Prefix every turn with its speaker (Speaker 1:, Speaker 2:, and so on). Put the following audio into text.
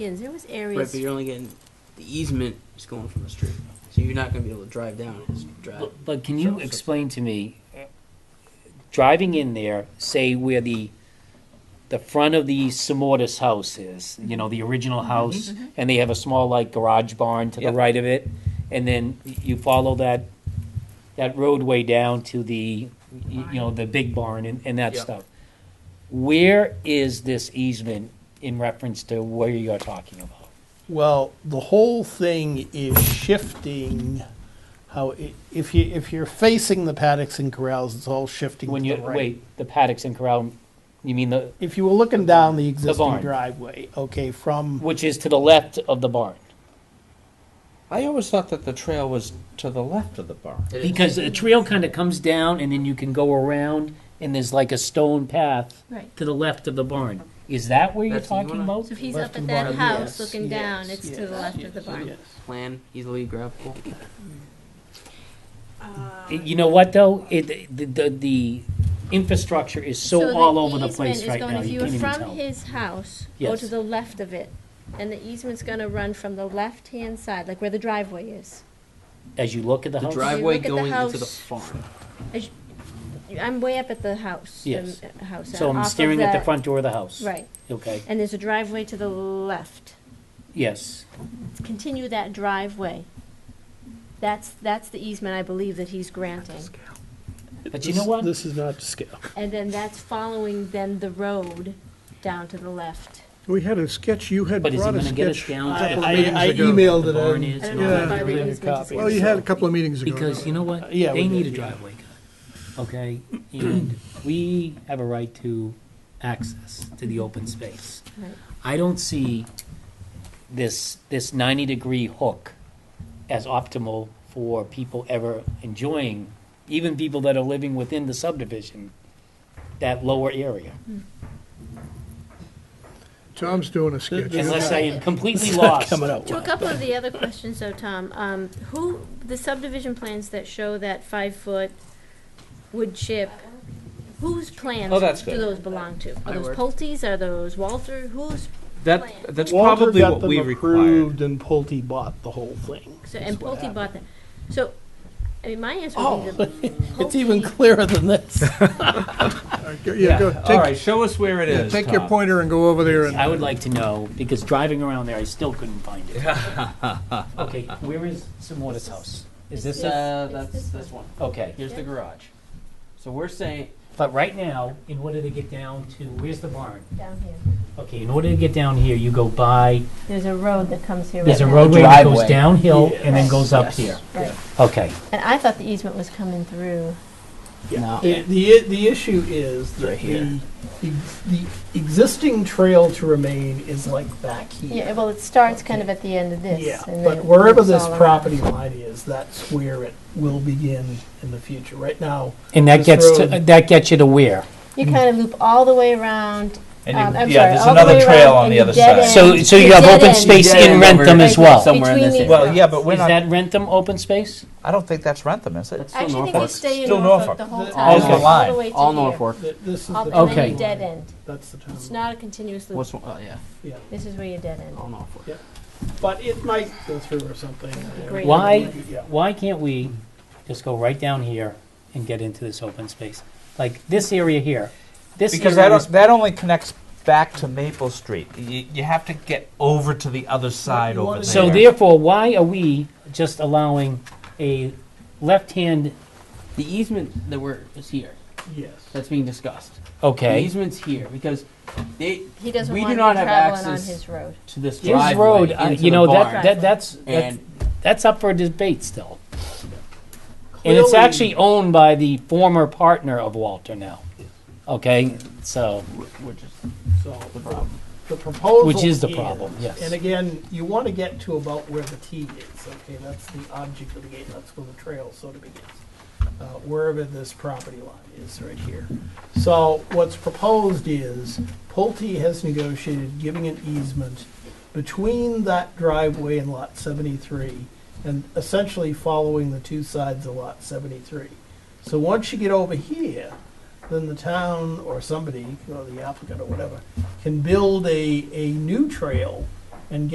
Speaker 1: Yeah, there was
Speaker 2: Right, but
Speaker 1: areas,
Speaker 2: you're only getting, the easement is going from the street, so you're not gonna be able to drive down his drive.
Speaker 3: But, but can you
Speaker 2: So- so-
Speaker 3: explain to me, uh, driving in there, say where the, the front of the Simortis house is, you know, the original house, and they have a small like garage barn to the
Speaker 2: Yep.
Speaker 3: right of it, and then y- you follow that, that roadway down to the, y- you know, the big barn and, and that
Speaker 2: Yep.
Speaker 3: stuff. Where is this easement in reference to where you're talking about?
Speaker 4: Well, the whole thing is shifting how, i- if you, if you're facing the paddocks and corrals, it's all shifting
Speaker 3: When
Speaker 4: to
Speaker 3: you,
Speaker 4: the right.
Speaker 3: wait, the paddocks and corral, you mean the,
Speaker 4: If you were looking down the existing
Speaker 3: barn.
Speaker 4: driveway, okay, from,
Speaker 3: which is to the left of the barn?
Speaker 5: I always thought that the trail was to the left of the barn.
Speaker 2: It is-
Speaker 3: Because the trail kind of comes down and then you can go around and there's like a stone path
Speaker 1: right.
Speaker 3: to the left of the barn. Is that where you're
Speaker 2: That's- you
Speaker 3: talking
Speaker 2: wanna-
Speaker 3: about?
Speaker 1: So if he's
Speaker 4: Left
Speaker 1: up at
Speaker 4: and
Speaker 1: that
Speaker 4: bottom,
Speaker 1: house
Speaker 4: yes,
Speaker 1: looking down,
Speaker 4: yes,
Speaker 1: it's to
Speaker 4: yes,
Speaker 1: the left of the barn.
Speaker 4: yes.
Speaker 2: Plan, easily grabbable.
Speaker 3: You know what though? It, the, the, the infrastructure is so
Speaker 1: the
Speaker 3: all over the
Speaker 1: easement
Speaker 3: place
Speaker 1: is
Speaker 3: right
Speaker 1: going-
Speaker 3: now, you
Speaker 1: If
Speaker 3: can't
Speaker 1: you
Speaker 3: even
Speaker 1: were from
Speaker 3: tell.
Speaker 1: his house, go to
Speaker 3: Yes.
Speaker 1: the left of it, and the easement's gonna run from the left-hand side, like where the driveway is.
Speaker 3: As you look at the
Speaker 2: The
Speaker 3: house,
Speaker 2: driveway
Speaker 1: look at the
Speaker 2: going into the
Speaker 1: house-
Speaker 2: farm.
Speaker 1: I'm way up at the house. the
Speaker 3: Yes.
Speaker 1: m- uh, House. uh,
Speaker 3: so
Speaker 1: off
Speaker 3: I'm
Speaker 1: of
Speaker 3: staring at the
Speaker 1: that-
Speaker 3: front door of the house.
Speaker 1: Right,
Speaker 3: Okay,
Speaker 1: and there's a driveway to the left.
Speaker 3: yes.
Speaker 1: Continue that driveway. That's, that's the easement I believe that he's granting.
Speaker 3: But you know what?
Speaker 4: This is not to scale.
Speaker 1: And then that's following then the road down to the left.
Speaker 6: We had a sketch, you had
Speaker 3: But is it
Speaker 6: brought a
Speaker 3: gonna get us
Speaker 6: sketch.
Speaker 3: down?
Speaker 4: I,
Speaker 3: to the
Speaker 4: I- I
Speaker 6: meetings ago.
Speaker 4: emailed it
Speaker 3: The barn
Speaker 4: in.
Speaker 3: is
Speaker 1: and
Speaker 3: all
Speaker 1: all
Speaker 6: that.
Speaker 4: I
Speaker 1: Yeah.
Speaker 4: made a copy.
Speaker 6: uh, Well, Oh, you had a couple of meetings ago.
Speaker 3: Because you know what?
Speaker 4: Uh, Yeah, we
Speaker 3: They need a
Speaker 4: did, yeah.
Speaker 3: driveway, cut, okay? And we have a right to access to the open space.
Speaker 1: Right.
Speaker 3: I don't see this, this ninety-degree hook as optimal for people ever enjoying, even people that are living within the subdivision, that lower area.
Speaker 6: Tom's doing a sketch.
Speaker 3: Unless I am completely
Speaker 4: It's not
Speaker 3: lost.
Speaker 4: coming out
Speaker 1: To a
Speaker 4: well.
Speaker 1: couple of the other questions though, Tom, um, who, the subdivision plans that show that five-foot wood chip, whose plans
Speaker 5: Oh, that's
Speaker 1: do
Speaker 5: good.
Speaker 1: those belong to? Are
Speaker 2: I
Speaker 1: those
Speaker 2: work.
Speaker 1: Pulte's, are those Walter, who's,
Speaker 5: That that's
Speaker 4: Walter
Speaker 5: probably
Speaker 4: got
Speaker 5: what
Speaker 4: them
Speaker 5: we required.
Speaker 4: approved And Pulte bought the whole thing.
Speaker 1: so- and
Speaker 4: what
Speaker 1: Pulte bought that? So, I mean, my answer would be the
Speaker 4: It's even
Speaker 1: Pulte-
Speaker 4: clearer than this.
Speaker 6: Yeah, go,
Speaker 5: All
Speaker 6: take,
Speaker 5: right, show us where it
Speaker 6: yeah,
Speaker 5: is.
Speaker 6: take your
Speaker 5: Tom.
Speaker 6: pointer and go over there
Speaker 3: I
Speaker 6: and,
Speaker 3: would like to know, because driving around there, I still couldn't find it. Okay, where is Simortis House? Is this, a-
Speaker 2: Uh,
Speaker 1: It's
Speaker 2: that's
Speaker 1: this
Speaker 2: this one.
Speaker 3: okay.
Speaker 2: Here's the garage. So we're saying,
Speaker 3: But right now, in order to get down to, where's the barn?
Speaker 1: Down here.
Speaker 3: Okay, in order to get down here, you go by,
Speaker 1: There's a road that comes here.
Speaker 3: there's a
Speaker 1: right now.
Speaker 3: roadway that goes
Speaker 2: Driveway.
Speaker 3: downhill and then
Speaker 1: Yes.
Speaker 3: goes up here.
Speaker 1: Right.
Speaker 3: Okay,
Speaker 1: And I thought the easement was coming through.
Speaker 2: no,
Speaker 4: It- The, i- the issue is that the, the existing trail to remain is like back
Speaker 1: Yeah,
Speaker 4: here.
Speaker 1: well, it starts kind of at the end of this.
Speaker 4: Yeah,
Speaker 1: and
Speaker 4: but
Speaker 1: then
Speaker 4: wherever
Speaker 1: it's
Speaker 4: this
Speaker 1: all around.
Speaker 4: property line is, that's where it will begin in the future. Right now,
Speaker 3: and that
Speaker 4: This
Speaker 3: gets, to
Speaker 4: road-
Speaker 3: that gets you to where?
Speaker 1: You kind of loop all the way around.
Speaker 5: And
Speaker 1: um,
Speaker 5: you-
Speaker 1: I'm
Speaker 5: yeah,
Speaker 1: sorry,
Speaker 5: there's
Speaker 1: all the
Speaker 5: another
Speaker 1: way
Speaker 5: trail
Speaker 1: around
Speaker 5: on
Speaker 1: and
Speaker 5: the
Speaker 1: you
Speaker 5: other
Speaker 1: dead
Speaker 5: side.
Speaker 3: So,
Speaker 1: end-
Speaker 3: so you have
Speaker 1: dead
Speaker 3: open
Speaker 1: end
Speaker 3: space
Speaker 5: Dead
Speaker 3: in
Speaker 5: end over
Speaker 3: Rentham as
Speaker 1: here.
Speaker 3: well.
Speaker 2: somewhere in
Speaker 1: between
Speaker 2: this
Speaker 1: these
Speaker 2: area.
Speaker 5: Well,
Speaker 1: roads.
Speaker 5: yeah, but
Speaker 3: Is
Speaker 5: we're not.
Speaker 3: that Rentham open space?
Speaker 5: I don't think that's Rentham, is it?
Speaker 1: I actually think you stay in
Speaker 5: Still
Speaker 1: Norfolk
Speaker 5: Norfolk.
Speaker 1: the whole time.
Speaker 2: All
Speaker 1: all
Speaker 2: Norfolk.
Speaker 1: the
Speaker 5: Line.
Speaker 1: way to
Speaker 2: all
Speaker 1: here.
Speaker 2: Norfolk.
Speaker 4: th- this is
Speaker 1: Up
Speaker 4: the.
Speaker 1: and
Speaker 3: Okay.
Speaker 1: then you dead end.
Speaker 4: That's the town.
Speaker 1: It's not a continuous loop.
Speaker 2: What's, one- oh, yeah,
Speaker 4: Yeah,
Speaker 1: This is where you dead end.
Speaker 2: all Norfolk.
Speaker 4: but it might go through or something.
Speaker 1: Great.
Speaker 3: Why,
Speaker 4: Yeah.
Speaker 3: why can't we just go right down here and get into this open space? Like this area here, this
Speaker 5: Because
Speaker 3: area
Speaker 5: that
Speaker 3: is
Speaker 5: o- that only connects back to Maple Street. You, you have to get over to the other side
Speaker 4: You
Speaker 5: over
Speaker 4: wanna-
Speaker 5: there.
Speaker 3: So therefore, why are we just allowing a left-hand,
Speaker 2: The easement that we're, is here,
Speaker 4: Yes.
Speaker 2: that's being discussed. The
Speaker 3: okay?
Speaker 2: easement's here, because they,
Speaker 1: He doesn't
Speaker 2: We
Speaker 1: want
Speaker 2: do
Speaker 1: you
Speaker 2: not have
Speaker 1: traveling on
Speaker 2: access-
Speaker 1: his road.
Speaker 2: to this
Speaker 3: His road,
Speaker 2: driveway
Speaker 3: uh,
Speaker 2: into
Speaker 3: you
Speaker 2: the
Speaker 3: know, that,
Speaker 2: barn.
Speaker 3: that, that's, that's,
Speaker 2: And
Speaker 3: that's up for debate still. And it's actually owned by the former partner of Walter now, okay? So,
Speaker 2: we're we're just,
Speaker 4: So, the proposal.
Speaker 3: Which is the problem, yes.
Speaker 4: And again, you want to get to about where the T is, okay, that's the object of the gate, that's where the trail sort of begins. Uh, wherever this property line is right here. So what's proposed is Pulte has negotiated giving an easement between that driveway and lot seventy-three and essentially following the two sides of lot seventy-three. So once you get over here, then the town or somebody, or the applicant or whatever, can build a, a new trail